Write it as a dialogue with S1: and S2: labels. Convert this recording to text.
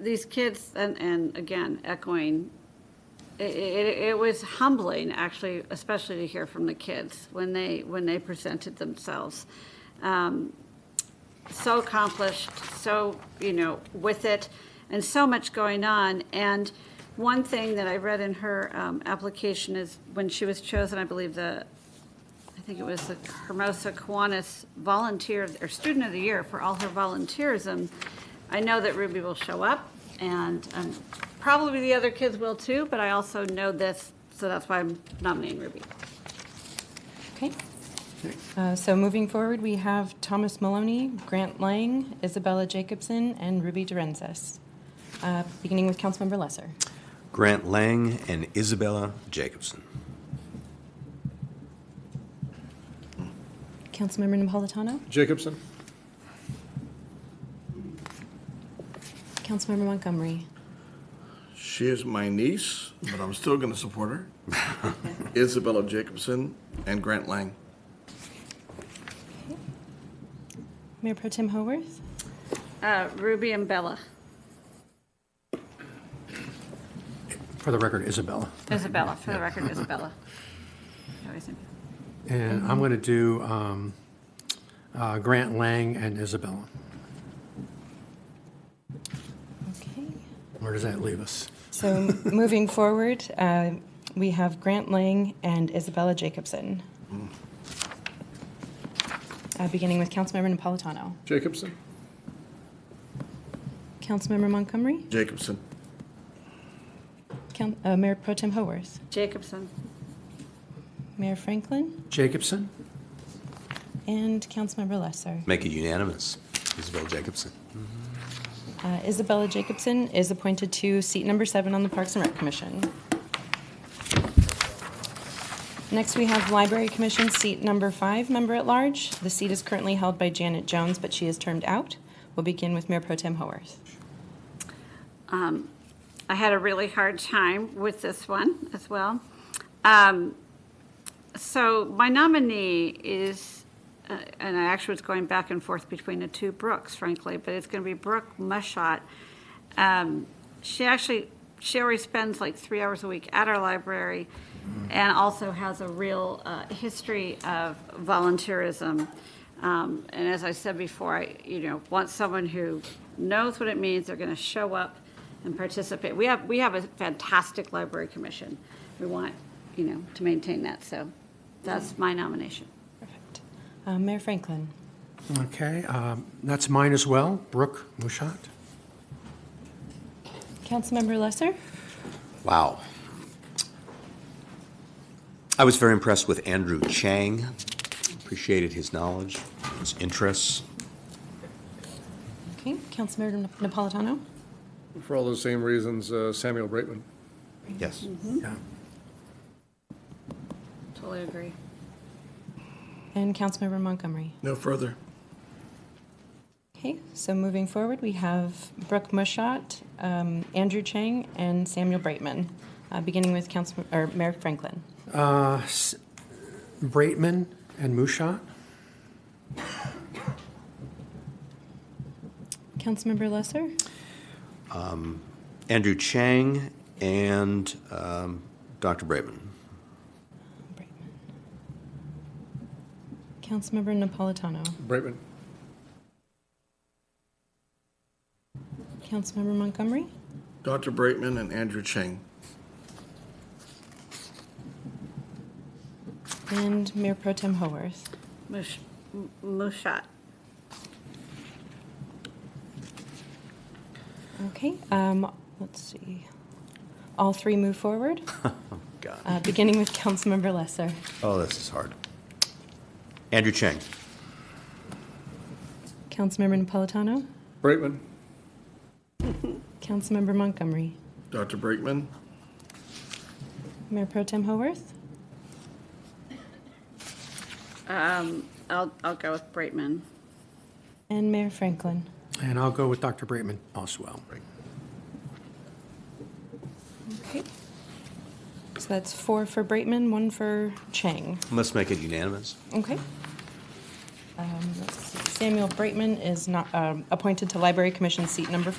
S1: these kids, and, and again, echoing, it, it, it was humbling, actually, especially to hear from the kids when they, when they presented themselves. Um, So accomplished, so, you know, with it, and so much going on. And one thing that I read in her um, application is when she was chosen, I believe, the I think it was the Hermosa Kiwanis Volunteer, or Student of the Year for all her volunteerism. I know that Ruby will show up, and um, probably the other kids will too, but I also know this, so that's why I'm nominating Ruby.
S2: Okay. Uh, So moving forward, we have Thomas Maloney, Grant Lang, Isabella Jacobson, and Ruby Durensis. Uh, Beginning with Councilmember Lesser.
S3: Grant Lang and Isabella Jacobson.
S2: Councilmember Napolitano,
S4: Jacobson?
S2: Councilmember Montgomery,
S5: She is my niece, but I'm still going to support her. Isabella Jacobson and Grant Lang.
S2: Mayor Pro Tem Haworth,
S1: Uh, Ruby and Bella,
S6: For the record, Isabella.
S1: Isabella, for the record, Isabella. I always am-
S6: And I'm going to do um, uh, Grant Lang and Isabella.
S2: Okay.
S6: Where does that leave us?
S2: So moving forward, uh, we have Grant Lang and Isabella Jacobson. Uh, Beginning with Councilmember Napolitano,
S4: Jacobson?
S2: Councilmember Montgomery,
S5: Jacobson.
S2: Coun- uh, Mayor Pro Tem Haworth,
S1: Jacobson,
S2: Mayor Franklin,
S6: Jacobson?
S2: and Councilmember Lesser.
S3: Make it unanimous. Isabella Jacobson.
S2: Uh, Isabella Jacobson is appointed to seat number seven on the Parks and Rec Commission. Next, we have Library Commission, seat number five, member-at-large. The seat is currently held by Janet Jones, but she is termed out. We'll begin with Mayor Pro Tem Haworth.
S1: I had a really hard time with this one as well. Um, So my nominee is, uh, and I actually was going back and forth between the two Brooks, frankly, but it's going to be Brooke Mushot. Um, She actually, she already spends like three hours a week at our library and also has a real uh, history of volunteerism. Um, And as I said before, I, you know, want someone who knows what it means, they're going to show up and participate. We have, we have a fantastic library commission. We want, you know, to maintain that, so that's my nomination.
S2: Perfect. Uh, Mayor Franklin.
S6: Okay, um, that's mine as well, Brooke Mushat.
S2: Councilmember Lesser?
S3: Wow. I was very impressed with Andrew Chang. Appreciated his knowledge, his interests.
S2: Okay, Councilmember Napolitano?
S4: For all those same reasons, uh, Samuel Braitman.
S3: Yes.
S6: Yeah.
S1: Totally agree.
S2: And Councilmember Montgomery.
S5: No further.
S2: Okay, so moving forward, we have Brooke Mushat, um, Andrew Chang, and Samuel Brightman, uh, beginning with Council, or Mayor Franklin.
S6: Uh, S- Braitman and Mushat?
S2: Councilmember Lesser,
S3: Andrew Chang and um, Dr. Braitman.
S2: Councilmember Napolitano,
S4: Braitman.
S2: Councilmember Montgomery,
S5: Dr. Braitman and Andrew Chang.
S2: and Mayor Pro Tem Haworth.
S1: Mush, M- Mushat,
S2: Okay, um, let's see. All three move forward,
S3: God.
S2: uh, beginning with Councilmember Lesser,
S3: Oh, this is hard. Andrew Chang.
S2: Councilmember Napolitano,
S4: Braitman.
S2: Councilmember Montgomery,
S5: Dr. Braitman.
S2: Mayor Pro Tem Haworth,
S1: I'll, I'll go with Braitman.
S2: and Mayor Franklin.
S6: And I'll go with Dr. Braitman as well.
S2: Okay. So that's four for Braitman, one for Chang.
S3: Let's make it unanimous.
S2: Okay. Um, let's see. Samuel Braitman is not, um, appointed to Library Commission seat number